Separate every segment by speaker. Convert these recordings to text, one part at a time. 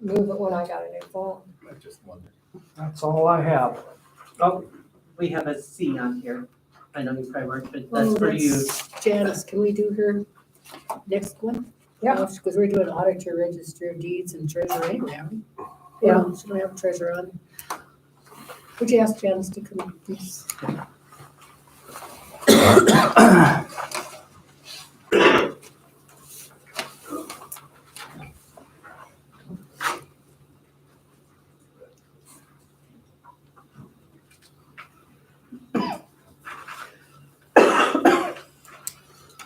Speaker 1: move it when I got a new phone.
Speaker 2: I just wondered.
Speaker 3: That's all I have. Oh,
Speaker 4: We have a C on here. I know you probably weren't, but
Speaker 5: Oh,
Speaker 4: that's for you.
Speaker 5: Janice, can we do her next one?
Speaker 1: Yeah.
Speaker 5: Because we're doing auditor, register of deeds and treasurer anyway, aren't we?
Speaker 1: Yeah.
Speaker 5: Well, She don't have treasurer on. Would you ask Janice to come, up, please?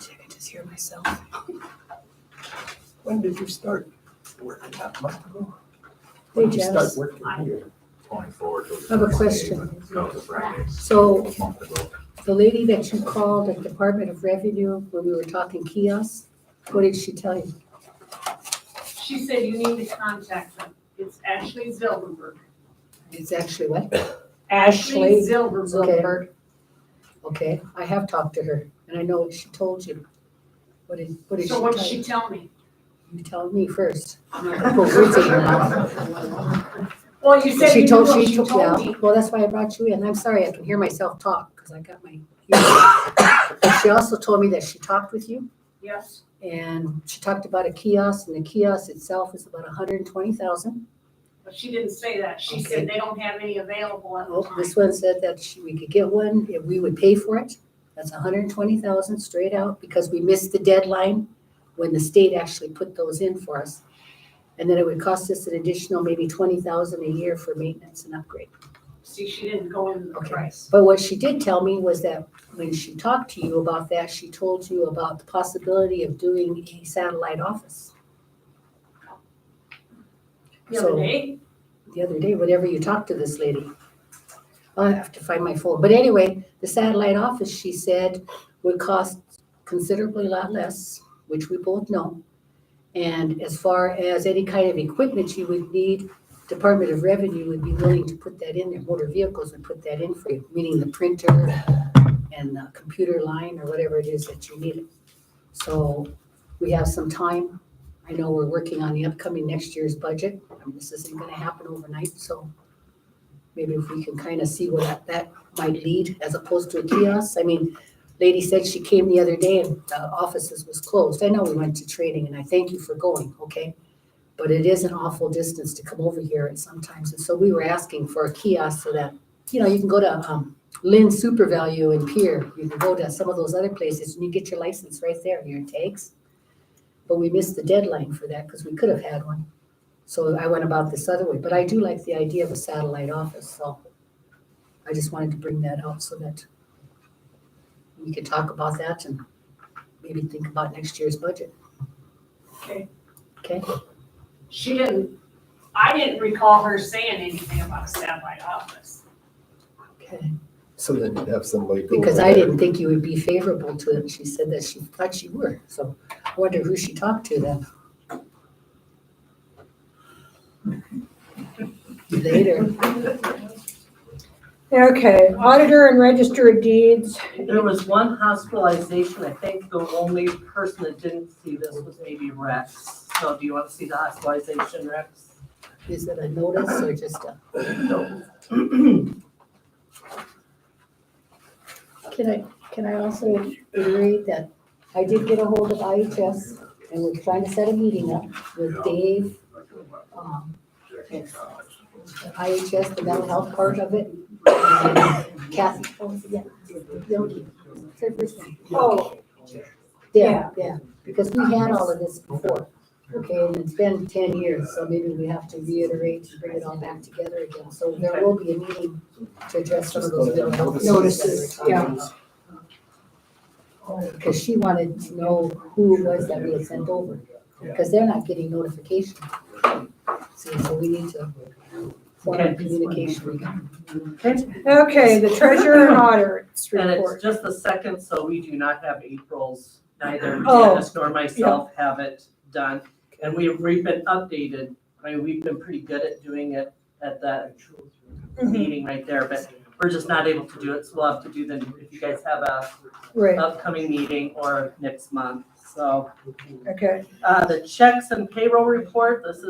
Speaker 5: Check, I just hear myself.
Speaker 2: When did you start working that month ago?
Speaker 5: Hey,
Speaker 2: When did you start
Speaker 5: Janice,
Speaker 2: working here?
Speaker 6: Twenty-four.
Speaker 5: I have a question.
Speaker 6: No, the Fridays,
Speaker 5: So
Speaker 6: a month ago.
Speaker 5: the lady that you called at Department of Revenue when we were talking kiosks, what did she tell you?
Speaker 7: She said you need to contact them. It's Ashley Zilberberg.
Speaker 5: It's actually what?
Speaker 7: Ashley
Speaker 5: Ashley
Speaker 7: Zilberberg.
Speaker 5: Okay. Okay, I have talked to her and I know what she told you. What did, what did she
Speaker 7: So
Speaker 5: tell
Speaker 7: what did she
Speaker 5: you?
Speaker 7: tell me?
Speaker 5: You tell me first. I'm not gonna put words in your mouth.
Speaker 7: Well, you said you
Speaker 5: She
Speaker 7: knew
Speaker 5: told,
Speaker 7: what
Speaker 5: she
Speaker 7: she
Speaker 5: took,
Speaker 7: told
Speaker 5: yeah,
Speaker 7: me.
Speaker 5: well, that's why I brought you in. I'm sorry, I can hear myself talk because I got my. But She also told me that she talked with you.
Speaker 7: Yes,
Speaker 5: And she talked about a kiosk, and the kiosk itself is about hundred and twenty thousand.
Speaker 7: but she didn't say that. She said they don't have any available at the
Speaker 5: Oh,
Speaker 7: time.
Speaker 5: this one said that she- we could get one, if we would pay for it. That's hundred and twenty thousand straight out, because we missed the deadline when the state actually put those in for us. And then it would cost us an additional maybe twenty thousand a year for maintenance and upgrade.
Speaker 7: See, she didn't go into the
Speaker 5: Okay.
Speaker 7: price.
Speaker 5: But what she did tell me was that when she talked to you about that, she told you about the possibility of doing a satellite office.
Speaker 7: The other
Speaker 5: So-
Speaker 7: day,
Speaker 5: the other day, whenever you talked to this lady. I have to find my phone. But anyway, the satellite office, she said, would cost considerably a lot less, which we both know. And as far as any kind of equipment you would need, Department of Revenue would be willing to put that in there. Motor vehicles would put that in for you, meaning the printer and the computer line or whatever it is that you need. So we have some time. I know we're working on the upcoming next year's budget. I mean, Um, this isn't gonna happen overnight, so maybe if we can kind of see where that, that might lead as opposed to a kiosk. I mean, lady said she came the other day and the offices was closed. I know we went to training and I thank you for going, okay? But it is an awful distance to come over here and sometimes, and so we were asking for a kiosk so that, you know, you can go to, um, Lynn Super Value in Pier, you can go to some of those other places and you get your license right there, your tags. But we missed the deadline for that because we could have had one. So I went about this other way, but I do like the idea of a satellite office, so I just wanted to bring that out so that we could talk about that and maybe think about next year's budget.
Speaker 7: Okay.
Speaker 5: Okay,
Speaker 7: she didn't, I didn't recall her saying anything about a satellite office.
Speaker 5: okay.
Speaker 2: So then you'd have somebody go.
Speaker 5: Because
Speaker 2: over
Speaker 5: I
Speaker 2: there.
Speaker 5: didn't think you would be favorable to it. She said that she thought you were, so I wonder who she talked to then. Later.
Speaker 1: Okay, auditor and register of deeds.
Speaker 4: There was one hospitalization, I think the only person that didn't see this was maybe Rex. So do you want to see the hospitalization, Rex?
Speaker 5: Is it a notice or just uh, a? Can I, can I also reiterate that I did get a hold of IHS and we're trying to set a meeting up with Dave,
Speaker 6: uh,
Speaker 5: um, and the IHS, the mental health part of it. and Kathy, oh, yeah, Yogi, say first name.
Speaker 1: Oh,
Speaker 5: Yeah, yeah, because we had all of this before. Okay, and it's been ten years, so maybe we have to reiterate, and bring it all back together again. So there will be a meeting to address some of those mental health
Speaker 1: Notices,
Speaker 5: notices. Because she wanted to know who it was that we had sent over, because they're not getting notification. See, so we need to form a communication again.
Speaker 1: okay, the treasurer and auditor's
Speaker 4: And
Speaker 1: report.
Speaker 4: it's just the second, so we do not have April's, neither
Speaker 1: Oh,
Speaker 4: Janice nor myself have it done. And we, we've been updated, I mean, we've been pretty good at doing it at that
Speaker 1: Mhm,
Speaker 4: meeting right there, but we're just not able to do it, so we'll have to do then, if you guys have a
Speaker 1: Right,
Speaker 4: upcoming meeting or next month, so.
Speaker 1: okay.
Speaker 4: Uh, the checks and payroll report, this is